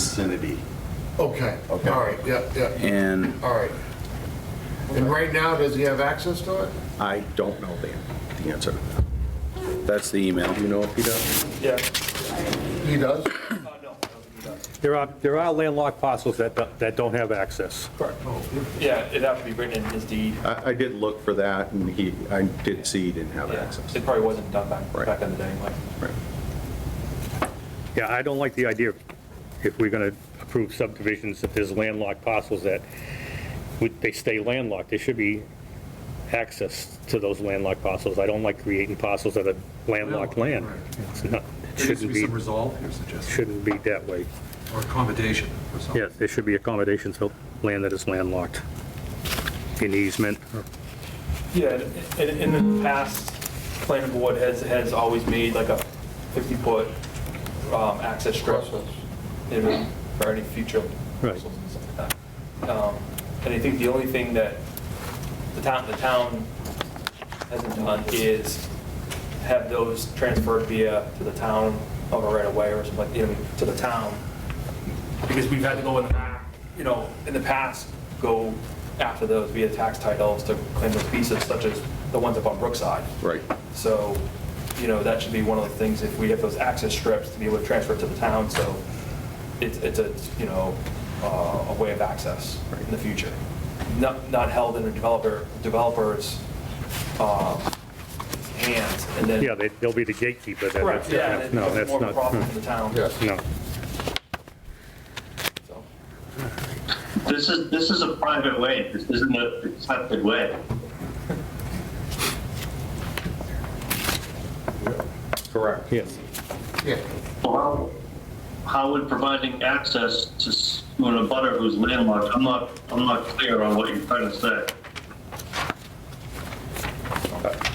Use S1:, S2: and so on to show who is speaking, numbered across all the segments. S1: vicinity.
S2: Okay, all
S1: Okay.
S2: right, yeah, yeah,
S1: And
S2: all right. And right now, does he have access to it?
S1: I don't know the, the answer. That's the email. Do you know, Peter?
S3: Yeah.
S2: He does?
S4: There are, there are landlocked parcels that, don't- that don't have access.
S2: Oh,
S3: Yeah, it'd have to be written in his deed.
S1: I, I did look for that and he, I did see he didn't have
S3: Yeah,
S1: access.
S3: It probably wasn't done back,
S1: Right.
S3: back in the day, like.
S1: Right.
S4: Yeah, I don't like the idea, of- if we're gonna approve subdivisions, if there's landlocked parcels that, would, they stay landlocked, there should be access to those landlocked parcels. I don't like creating parcels that are landlocked land. It's not, it
S5: There needs to
S4: shouldn't
S5: be
S4: be,
S5: some resolve here suggested,
S4: shouldn't be that way.
S5: or accommodation or something.
S4: Yes, there should be accommodations for land that is landlocked, an easement, or
S3: Yeah, in, in the past, planning board has, has always made like a 50-foot um, access strip you know, for any future
S4: Right.
S3: parcels and stuff like that. Um, And I think the only thing that the town, the town hasn't done is have those transferred via to the town of a right-of-way or something, like, you know, to the town. Because we've had to go in the back, you know, in the past, go after those via tax titles to claim those pieces, such as the ones up on Brookside.
S1: Right.
S3: So, you know, that should be one of the things, if we have those access strips, to be able to transfer it to the town, so it's, it's a, you know, uh, a way of access in the future. Not, not held in a developer, developer's uh, hands, and then.
S4: Yeah, they- they'll be the gatekeeper. that-
S3: Correct, yeah, and
S4: No,
S3: it's
S4: that's
S3: more of a
S4: not,
S3: problem for the town.
S2: Yes.
S4: no.
S3: so.
S6: This is, this is a private way. This isn't a accepted way.
S1: Correct.
S4: Yes.
S2: Yeah.
S6: Well, how, how would providing access to, s- to a butter who's landlocked, I'm not, I'm not clear on what you're trying to say.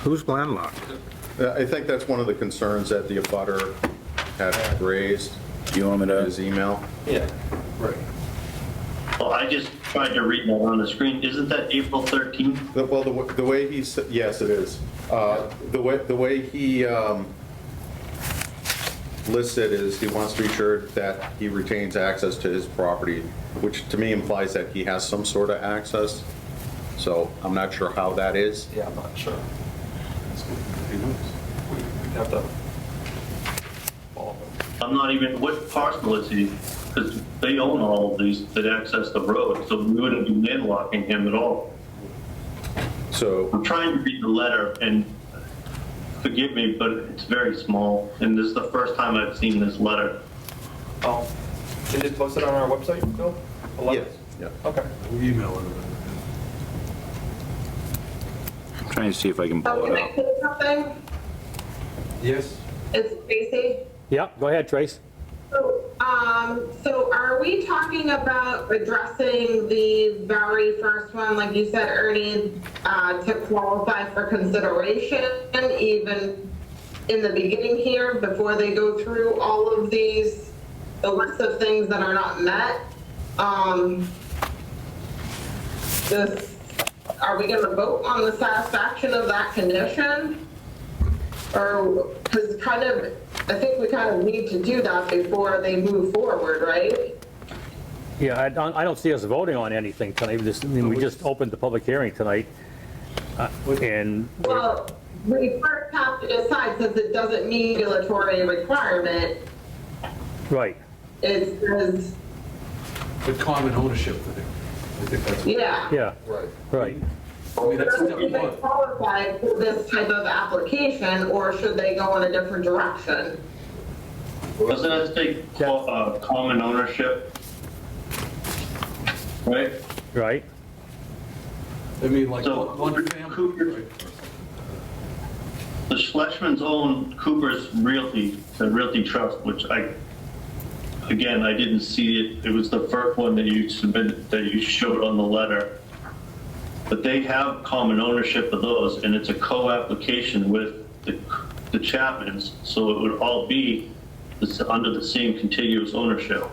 S7: Who's landlocked?
S1: Uh, I think that's one of the concerns that the abutter had raised. Do you want me to? His email.
S3: Yeah,
S2: Right.
S6: Well, I just tried to read that on the screen. Isn't that April 13th?
S1: The- Well, the w- the way he, s- yes, it is. Uh, The way, the way he um, lists it is he wants to be sure that he retains access to his property, which to me implies that he has some sort of access. So I'm not sure how that is.
S3: yeah, I'm not sure. We- We'd have to follow them.
S6: I'm not even, what parcel is he? Because they own all of these that access the road, so we wouldn't be landlocking him at all.
S1: So,
S6: I'm trying to read the letter, and forgive me, but it's very small, and this is the first time I've seen this letter.
S3: Um, Is it posted on our website, Bill?
S1: yes,
S3: Eleven?
S1: yeah.
S3: Okay.
S5: We'll Email it.
S8: Trying to see if I can blow it
S9: Um, Can I
S8: up.
S9: say something?
S5: Yes?
S9: It's Tracy.
S4: Yeah, go ahead, Trace.
S9: So, um, so are we talking about addressing the very first one, like you said, Ernie, uh, to qualify for consideration even in the beginning here, before they go through all of these, the list of things that are not met? Um, this, are we gonna vote on the satisfaction of that condition? Or, because kind of, I think we kind of need to do that before they move forward, right?
S4: Yeah, I don't, I don't see us voting on anything tonight, We just, I mean, we just opened the public hearing tonight, uh, and,
S9: Well, we first have to decide, since it doesn't meet regulatory requirement,
S4: right,
S9: it says,
S5: But common ownership, I think. I think that's,
S9: yeah.
S4: yeah,
S2: Right.
S4: right.
S5: I mean, that's step
S9: Do they
S5: one.
S9: qualify for this type of application, or should they go in a different direction?
S6: Doesn't that say co- uh, common ownership? Right?
S4: Right?
S5: I mean, like,
S6: So-
S5: one one family. right?
S6: The Schlesman's own Cooper's Realty, the Realty Trust, which I, again, I didn't see it. It was the first one that you submitted, that you showed on the letter. But they have common ownership of those, and it's a co-application with the the Chapmans, so it would all be this- under the same contiguous ownership.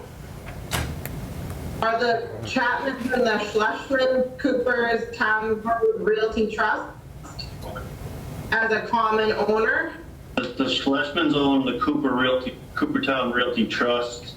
S9: Are the Chapman and the Schlesman Cooper's Town Road Realty Trust as a common owner?
S6: The the Schlesmans own the Cooper Realty, Coopertown Realty Trust,